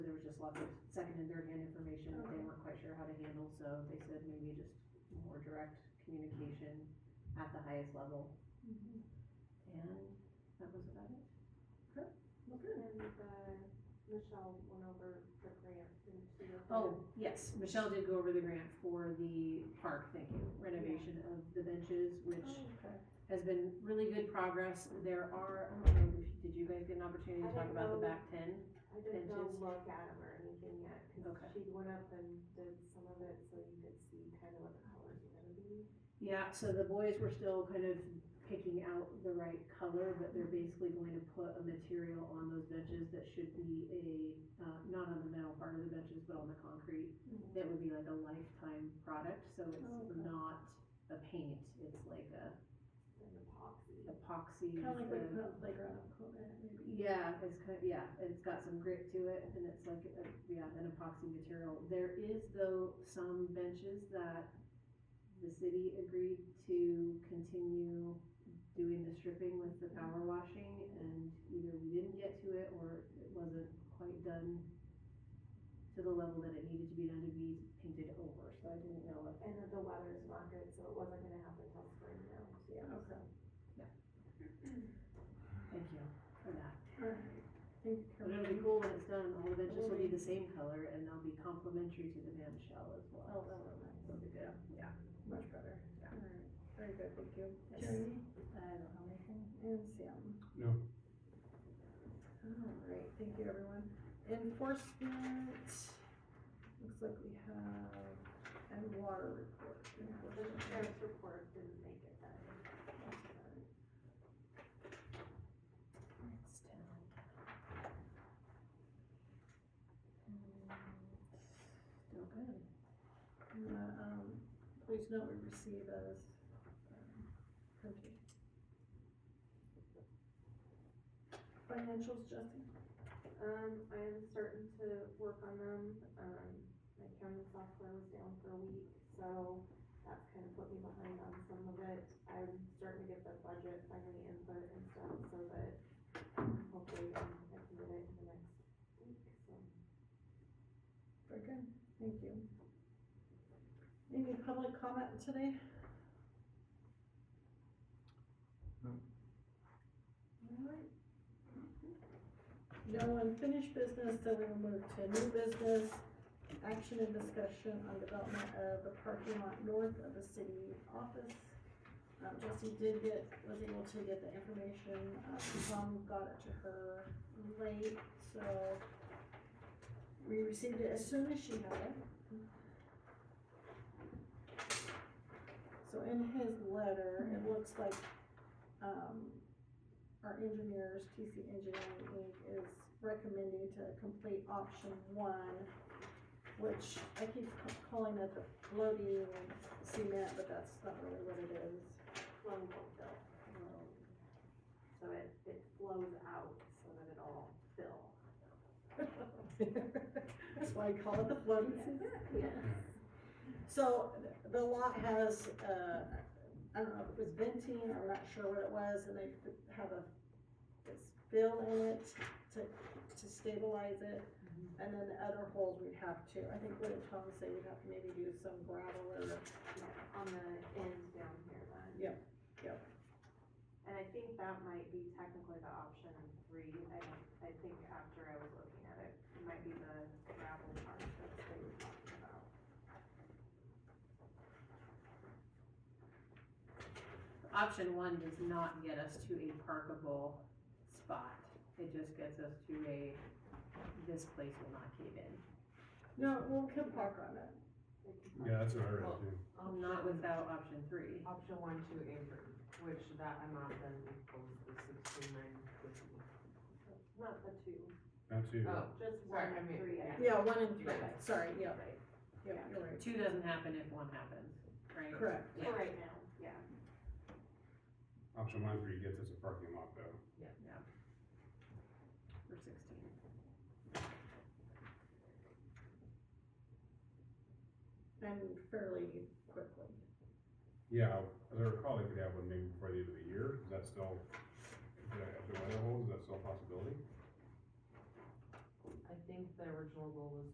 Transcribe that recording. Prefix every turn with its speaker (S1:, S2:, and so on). S1: was just lots of second and third hand information that they weren't quite sure how to handle, so they said maybe just more direct communication at the highest level,
S2: Mhm.
S1: and that was about it.
S2: Well, good. And, uh, Michelle went over the grant and she. looked at
S1: Oh, yes, Michelle did go over the grant for the park, thank you, renovation of the benches,
S2: it.
S1: which
S2: Oh, okay.
S1: has been really good progress. There are, I don't know, if- did you guys get an opportunity to
S2: I
S1: talk
S2: don't
S1: about the
S2: know.
S1: back ten?
S2: I didn't go
S1: Benches.
S2: look at them or anything yet,
S1: Okay.
S2: cause she went up and did some of it so you could see kind of what the colors were gonna be.
S1: Yeah, so the boys were still kind of picking out the right color, but they're basically going to put a material on those benches that should be a, uh, not on the metal part of the benches, but on the concrete.
S3: Mm-hmm.
S1: That would be like a lifetime product, so
S2: Oh,
S1: it's
S2: okay.
S1: not a paint, it's like a
S2: And epoxy.
S1: epoxy.
S3: Kind of like
S1: with
S3: what you
S1: a-
S3: put on playground equipment, maybe.
S1: Yeah, it's kind of, yeah, it's got some grit to it and it's like, a, yeah, an epoxy material. There is though some benches that the city agreed to continue doing the stripping with the power washing and either we didn't get to it or it wasn't quite done to the level that it needed to be done to be painted over, so I didn't know if
S2: And the weather's not good, so it wasn't gonna happen till spring now.
S1: Yeah,
S3: okay.
S1: Thank you for that.
S3: Alright. Thank you.
S1: But it'll be cool when it's done, all the benches will be the same color and they'll be complementary to the man shell as well.
S3: Oh, that'll be nice.
S1: That'll be good, yeah.
S3: Much better.
S1: Yeah.
S3: Alright, very good, thank you.
S1: Yes.
S3: Jeremy? I don't have anything. And Sam?
S4: No.
S3: Alright, thank you, everyone. Enforcement, looks like we have, and water report.
S2: The
S3: enforcement.
S2: sheriff's report didn't make it then.
S3: It's down. Still good. And the, um, please note we receive as, um, printed. Financials, Jesse?
S2: Um, I am starting to work on them, um, my accounting software was down for a week, so that's kind of put me behind on some of it. I'm starting to get the budget, finally input and stuff, so that hopefully um, I can get it in the next week, so.
S3: Very good, thank you. Any public comment today?
S4: No.
S3: Alright. No unfinished business, so we will move to new business, action and discussion on development of the parking lot north of the city office. Um, Jesse did get, was able to get the information, uh, Tom got it to her late, so we received it as soon as she had it. So in his letter, it looks like, um, our engineers, TC Engineering Inc. is recommending to complete option one, which I keep ca- calling it the floating cement, but that's not really what it is.
S2: Flow will fill, so it, it flows out so that it'll fill.
S3: That's why I call it the floating cement.
S2: Yes.
S3: So the lot has, uh, I don't know if it was venting, I'm not sure what it was, and they have a, this bill in it to, to stabilize it. And then the other holes we'd have to, I think what did Tom say, we'd have to maybe do some gravel or,
S2: Yeah, on the end down here then.
S3: Yep, yep.
S2: And I think that might be technically the option three, I, I think after I was looking at it, it might be the gravel part that they were talking about.
S1: Option one does not get us to a parkable spot. It just gets us to a, this place will not cave in.
S3: no, we'll can park on it.
S4: Yeah, that's what I read too.
S1: Not without option three.
S5: Option one, two, apron, which that amount then equals the sixty-nine fifty.
S2: Not the two,
S4: That too.
S5: Oh,
S2: just one
S5: Sorry, I
S2: and
S5: mean,
S2: three. I
S5: yeah.
S2: think.
S3: Yeah, one and three,
S5: Yeah.
S3: sorry, yeah,
S2: Right,
S3: yeah, you're right,
S1: Two doesn't happen if one happens, right?
S3: correct.
S1: Yeah.
S2: for right now, yeah.
S4: Option one for you gets us a parking lot though.
S1: Or sixteen.
S3: And fairly quickly.
S4: Yeah, as I recall, they could have one maybe before the end of the year. Is that still, if the if the weather holds, is that still a possibility?
S5: I think think the original goal was